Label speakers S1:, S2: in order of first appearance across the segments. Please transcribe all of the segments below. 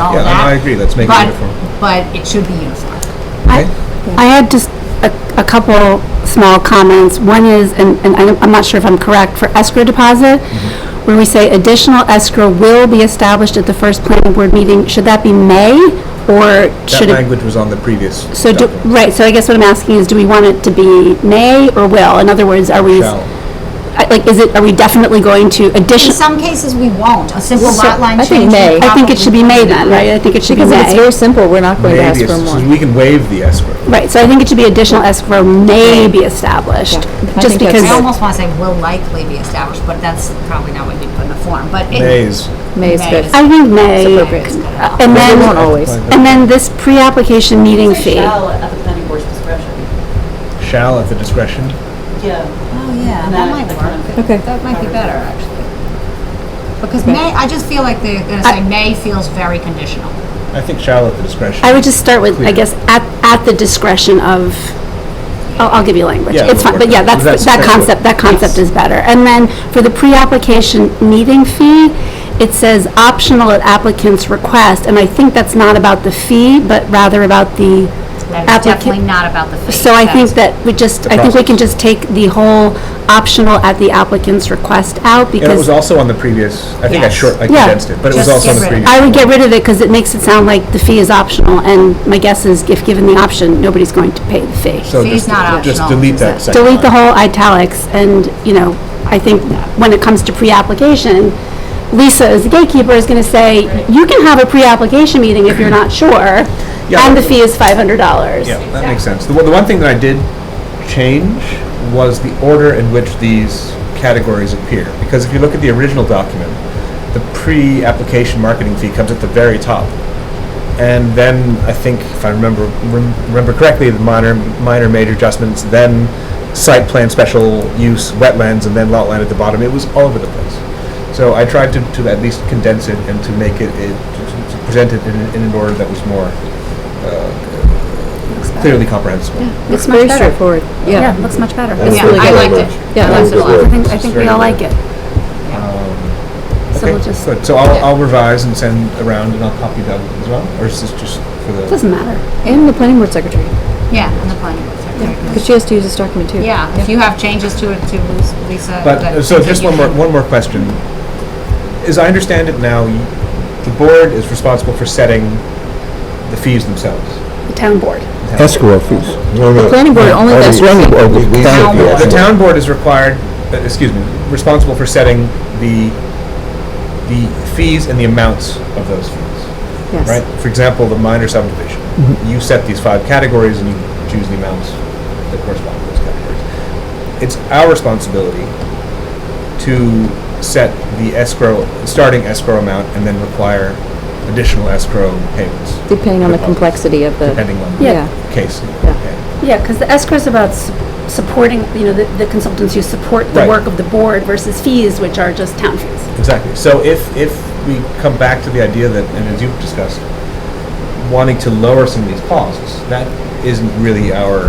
S1: all
S2: Yeah,
S1: that.
S2: no, I agree. Let's make it
S1: But-
S2: uniform.
S1: But it should be uniform.
S2: Okay?
S3: I had just a, a couple small comments. One is, and, and I'm I'm not sure if I'm correct, for escrow deposit,
S2: Mm-hmm.
S3: where we say additional escrow will be established at the first planning board meeting, should that be May? Or
S2: That
S3: should it?
S2: language was on the previous
S3: So, do-
S2: document.
S3: right, so I guess what I'm asking is, do we want it to be may or will? In other words, are we,
S2: Shall.
S3: I- like, is it, are we definitely going to
S1: In
S3: addition?
S1: some cases, we won't. A simple
S4: So,
S1: lot line
S4: I
S1: change.
S4: think May.
S1: would
S3: I think it should be may then, right? I think it should be
S4: Because if it's
S3: may.
S4: very simple, we're not going to ask
S2: Maybe,
S4: for
S2: it's-
S4: more.
S2: we can waive the escrow.
S3: Right, so I think it should be additional escrow may be established,
S4: I
S3: just
S4: think that's-
S3: because.
S1: probably- I almost want to say will likely be established, but that's probably not what you put in the form, but. it-
S2: May is,
S4: May is
S1: May
S4: good.
S1: is-
S3: I think May,
S4: appropriate.
S3: and
S4: But we
S3: then,
S4: won't always.
S3: and then this pre-application meeting fee.
S5: Shall at the planning board's discretion.
S2: shall at the discretion.
S5: Yeah.
S1: Oh, yeah, that
S5: And that-
S1: might
S5: that
S1: work.
S5: kind of-
S4: Okay.
S1: That might be better, actually. Because May, I just feel like they're going to say May feels very conditional.
S2: I think shall at the discretion.
S3: I would just start with, I
S2: Clear.
S3: guess, at, at the discretion of, I'll, I'll give you language.
S2: Yeah,
S3: It's
S2: we'll
S3: fine, but
S2: work
S3: yeah,
S2: on it.
S3: that's,
S2: That's-
S3: that
S2: that's what-
S3: concept, that concept is better. And then for the pre-application meeting fee, it says optional at applicant's request, and I think that's not about the fee, but rather about the
S1: That is definitely
S3: applicant.
S1: not about the fee.
S3: So I think
S1: That's-
S3: that we just,
S2: The
S3: I think we
S2: process.
S3: can just take the whole optional at the applicant's request out because.
S2: And it was also on the previous, I think I
S1: Yes.
S2: short, I
S3: Yeah.
S2: condensed it, but it was
S1: Just
S2: also on the
S1: get rid
S2: previous.
S1: of
S3: I would get rid of it because it makes it sound like the fee is optional, and my guess is if given the option, nobody's going to pay the fee.
S2: So
S1: Fee's
S2: just,
S1: not
S2: just
S1: optional.
S2: delete that section.
S3: Delete the whole italics, and, you know, I think when it comes to pre-application, Lisa as the gatekeeper is going to say, you can have a pre-application meeting if you're not sure,
S2: Yeah.
S3: and the fee is $500.
S2: Yeah, that makes sense. The, one- the one thing that I did change was the order in which these categories appear. Because if you look at the original document, the pre-application marketing fee comes at the very top. And then I think, if I remember, rem- remember correctly, the minor, minor, major adjustments, then site plan, special use, wetlands, and then lot line at the bottom. It was all over the place. So I tried to, to at least condense it and to make it, it to- to present it in, in an order that was more clearly comprehensible.
S4: It's
S3: much
S4: very
S3: better.
S4: straightforward. Yeah.
S3: looks much better.
S6: That's
S1: Yeah,
S6: really
S1: I
S6: good
S1: liked it.
S6: language.
S4: Yeah,
S6: That
S4: that's
S6: was
S4: a
S6: good
S4: lot.
S3: I
S6: word.
S3: think, I
S2: It's
S3: think
S2: very
S3: we all
S2: good.
S3: like it. So
S2: Okay,
S3: we'll just,
S2: Good, so I'll, I'll revise and send around and I'll copy Doug as well, or is this just for the?
S3: doesn't matter.
S4: And the planning board secretary,
S1: Yeah, on the planning board secretary.
S4: because she has to use this document too.
S1: Yeah, if you have changes to it, to Lus- Lisa.
S2: But,
S1: that-
S2: uh, so just
S1: you
S2: one more,
S1: can-
S2: one more question. As I understand it now, you- the board is responsible for setting the fees themselves.
S3: The town board.
S6: Escrow fees. The
S4: planning board only does
S6: Planning board, does the town
S1: board.
S6: fees.
S2: The town board is required, uh, excuse me, responsible for setting the, the fees and the amounts of those fees.
S4: Yes.
S2: right? For example, the minor subdivision. You set these five categories and you choose the amounts that correspond to those categories. It's our responsibility to set the escrow, starting escrow amount, and then require additional escrow payments,
S4: Depending on the complexity of the,
S2: depending on
S4: yeah.
S2: the case.
S4: Yeah.
S2: Okay.
S3: Yeah, because the escrow is about s- supporting, you know, the the consultants who support the
S2: Right.
S3: work of the board versus fees, which are just town fees.
S2: Exactly. So if, if we come back to the idea that, and as you've discussed, wanting to lower some of these costs, that isn't really our,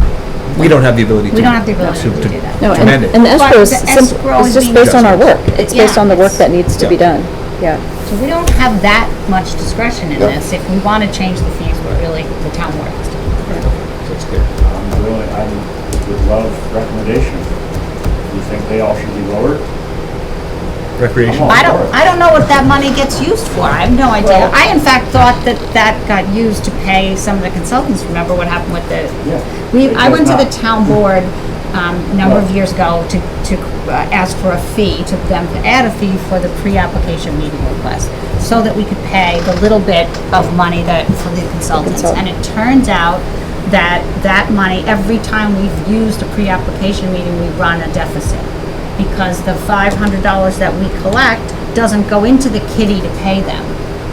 S2: we don't have the ability to.
S1: We don't have the ability to do that.
S4: No, and,
S2: amend it.
S4: and the escrow is
S1: But the escrow
S4: simple,
S1: is
S4: it's just
S1: being-
S4: based on our work. It's
S1: Yeah,
S4: based on the work
S1: it's-
S4: that needs to be
S2: Yeah.
S4: done. Yeah.
S1: So we don't have that much discretion in
S6: Yeah.
S1: this. If we want to change the fees, we're really, the town board has to.
S2: So it's clear.
S7: I'm really, I would love recommendations. Do you think they all should be lowered?
S2: Recreation.
S1: I don't, I don't know what that money gets used for. I have no idea.
S7: Well-
S1: I in fact thought that that got used to pay some of the consultants. Remember what happened with the,
S7: Yeah.
S1: we, I
S7: It
S1: went to
S7: does
S1: the
S7: not.
S1: town board, um, a number of years ago to, to uh, ask for a fee, to them to add a fee for the pre-application meeting request, so that we could pay the little bit of money that, for the consultants. And it turns out that that money, every time we've used a pre-application meeting, we run a deficit. Because the five hundred dollars that we collect doesn't go into the kitty to pay them.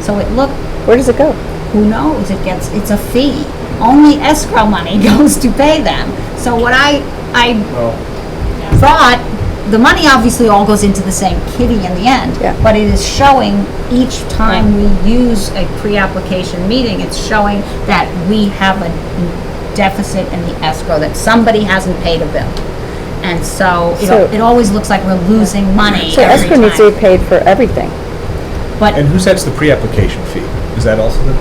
S1: So it looked
S4: Where does it go?
S1: who knows, it gets, it's a fee. Only escrow money goes to pay them. So what I, I
S7: Well-
S1: thought, the money obviously all goes into the same kitty in the end.
S4: Yeah.
S1: But it is showing each time we use a pre-application meeting, it's showing that we have a deficit in the escrow, that somebody hasn't paid a bill. And so, it,
S4: So-
S1: it always looks like we're losing money
S4: So
S1: every
S4: escrow needs to be
S1: time.
S4: paid for everything.
S1: But
S2: And who sets the pre-application fee? Is that also the